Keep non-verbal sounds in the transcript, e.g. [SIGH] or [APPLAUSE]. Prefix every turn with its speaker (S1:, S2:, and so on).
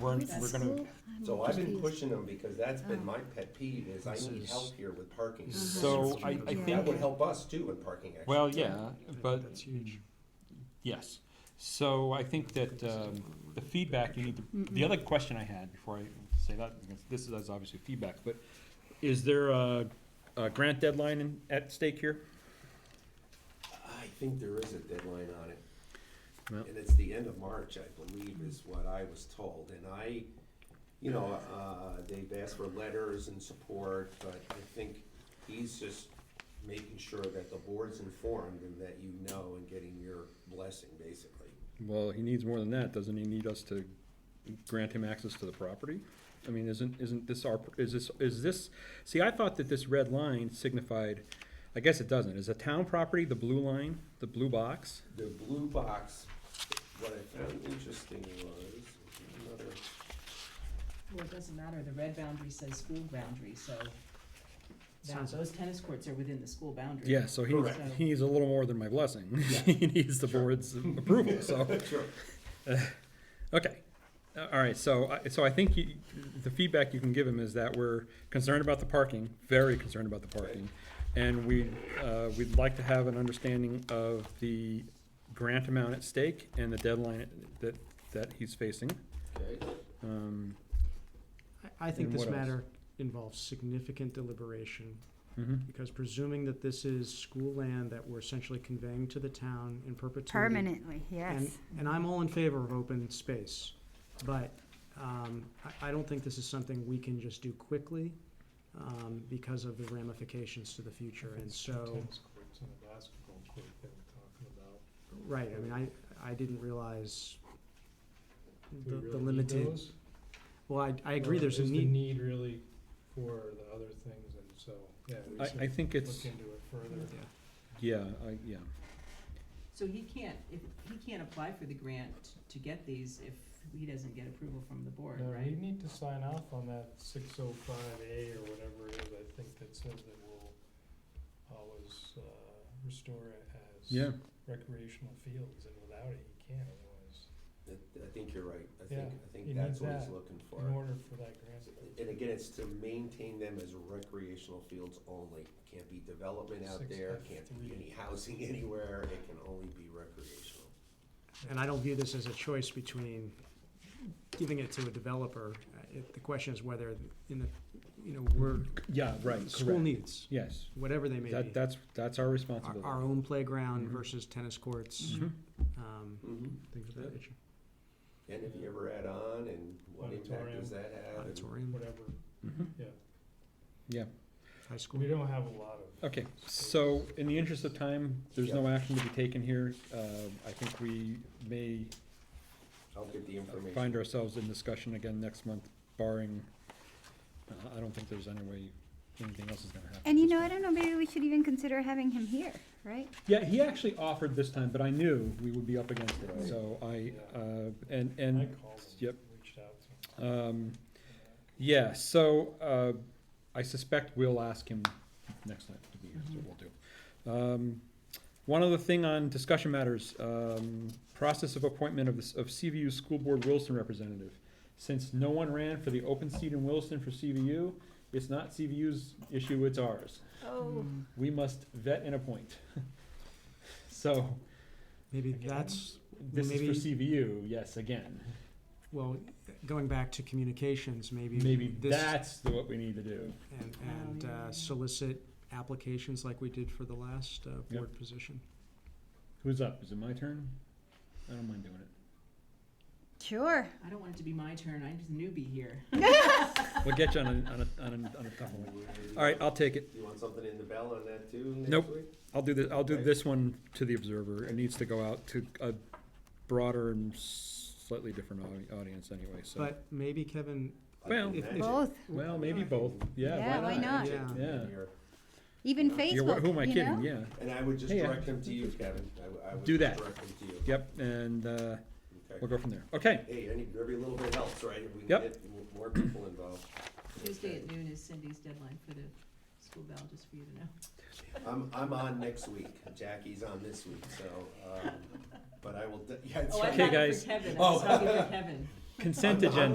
S1: learn, we're gonna,
S2: So I've been pushing them because that's been my pet peeve is I need help here with parking.
S1: so I, I
S3: Yeah.
S2: That would
S1: think,
S2: help us too in parking actually.
S1: well, yeah, but. That's huge. Yes, so I think that, um, the feedback, you need to, the other question I had before I say that, because this is, that's obviously feedback, but is there a, a grant deadline in, at stake here?
S2: I think there is a deadline on it.
S1: Well-
S2: And it's the end of March, I believe, is what I was told, and I, you know, uh, they've asked for letters and support, but I think he's just making sure that the board's informed and that you know and getting your blessing, basically.
S4: Well, he needs more than that, doesn't he need us to grant him access to the property? I mean, isn't, isn't this our, is this, is this, see, I thought that this red line signified, I guess it doesn't, is a town property the blue line, the blue box?
S2: The blue box, what I found interesting was, another,
S5: Well, it doesn't matter, the red boundary says school boundary, so that, those tennis courts are within the school boundary.
S4: Yeah, so he, needs-
S5: Correct.
S4: he needs a little more than my blessing, [LAUGHS] he needs the board's approval, so,
S2: sure,
S4: okay. Uh, All right, so, I- so I think you, the feedback you can give him is that we're concerned about the parking, very concerned about the parking. And we, uh, we'd like to have an understanding of the grant amount at stake and the deadline that, that he's facing.
S2: okay.
S4: Um,
S6: I think
S4: And
S6: this
S4: what else?
S6: matter involves significant deliberation,
S4: mhm.
S6: because presuming that this is school land that we're essentially conveying to the town in perpetuity.
S3: Permanently, yes.
S6: And, and I'm all in favor of open space, but, um, I, I don't think this is something we can just do quickly, um, because of the ramifications to the future, and so,
S7: courts and the basketball court they were talking about.
S6: right, I mean, I, I didn't realize
S7: Do
S6: the,
S7: we
S6: the
S7: really need
S6: limited,
S7: those?
S6: well, I, I
S7: Or
S6: agree, there's a
S7: is
S6: need,
S7: the need really for the other things, and so, yeah, we
S4: I, I
S7: should
S4: think
S7: look
S4: it's,
S7: into it further.
S6: Yeah.
S4: yeah, I, yeah,
S5: So he can't, if, he can't apply for the grant to get these if he doesn't get approval from the board,
S7: No,
S5: right?
S7: you need to sign off on that six oh five A or whatever it is, I think that says that we'll always, uh, restore it as
S4: yeah.
S7: recreational fields, and without it, you can't otherwise.
S2: I, I think you're right, I think,
S7: Yeah,
S2: I
S7: you
S2: think that's
S7: need
S2: what he's
S7: that
S2: looking for.
S7: In order for that grant.
S2: And again, it's to maintain them as recreational fields only. Can't be development out
S7: Six
S2: there,
S7: F
S2: can't
S7: three.
S2: be any housing [LAUGHS] anywhere, it can only be recreational.
S6: And I don't view this as a choice between giving it to a developer. Uh, it- The question is whether in the, you know, we're,
S4: Yeah, right,
S6: school
S4: correct,
S6: needs,
S4: yes,
S6: whatever they may
S4: that,
S6: be.
S4: that's, that's our
S6: Our,
S4: responsibility.
S6: our own playground
S4: Mhm.
S6: versus tennis courts,
S4: Mhm.
S6: um,
S4: Mm-hmm.
S6: things of that nature.
S2: And if you ever add on, and what impact does that have? and-
S6: Auditorium,
S7: Uh, Whatever,
S4: Mhm.
S7: yeah,
S6: high school.
S7: we don't have a lot of.
S4: Okay, so in the interest of time, there's no action to be taken here. Uh, I think we may
S2: I'll get the
S4: find
S2: information.
S4: ourselves in discussion again next month barring, uh, I don't think there's any way anything else is gonna happen.
S3: And you know, I don't know, maybe we should even consider having him here, right?
S4: Yeah, he actually offered this time, but I knew we would be up against it,
S2: Right.
S4: so I,
S7: Yeah.
S4: uh, and,
S7: I
S4: and,
S7: called them,
S4: yep.
S7: Reached out to them.
S4: um, yeah, so, uh, I suspect we'll ask him next time to be here, so we'll do. Um, one other thing on discussion matters, um, process of appointment of, this- of CVU School Board Wilson representative. Since no one ran for the open seat in Wilson for CVU, it's not CVU's issue, it's ours.
S3: Oh,
S4: We must vet and appoint. [LAUGHS] So,
S6: Maybe
S7: Again.
S6: that's,
S4: this is for
S6: Maybe-
S4: CVU, yes, again.
S6: well, going back to communications, maybe.
S4: Maybe
S6: this-
S4: that's the- what we need to do.
S6: And,
S5: Oh,
S6: and
S5: yeah.
S6: uh, solicit applications like we did for the last uh, board position.
S4: Who's up? Is it my turn? I don't mind doing it.
S3: sure.
S5: I don't want it to be my turn, I'm just a newbie here. [LAUGHS]
S4: We'll get you on a, on a, on a, on a tough one. All right, I'll take it.
S2: You want something in the bell on that too next
S4: Nope.
S2: week?
S4: I'll do this, I'll do this one to the observer. It needs to go out to a broader and slightly different audi- audience anyway, so.
S6: But maybe Kevin,
S2: I
S4: Well,
S2: can
S6: if-
S2: imagine.
S3: Both,
S4: Well, maybe both. Yeah,
S3: Yeah,
S4: why
S3: why
S4: not?
S3: not?
S2: Imagine
S4: Yeah.
S2: being here.
S3: even
S2: Yeah.
S4: You're-
S3: Facebook,
S4: Who am I
S3: you
S4: kidding?
S3: know?
S4: Yeah.
S2: And I would just
S4: Hey, I-
S2: direct them to you, Kevin. I w- I would
S4: Do
S2: just
S4: that.
S2: Direct them to you.
S4: Yep, and, uh,
S2: Okay.
S4: we'll go from there. Okay.
S2: Hey, any, every little bit helps, right? If we can
S4: Yep.
S2: get m- more people involved.
S5: Tuesday at noon is Cindy's deadline for the school bell, just for you to know.
S2: I'm, I'm on next week. Jackie's on this week, so, um, but I will, de- yeah, it's
S5: Oh, I
S2: right.
S4: Okay,
S5: thought it
S4: guys.
S5: for Kevin, I was
S2: Oh.
S5: talking for Kevin.
S4: Consent
S2: I'm- I'm
S4: agenda.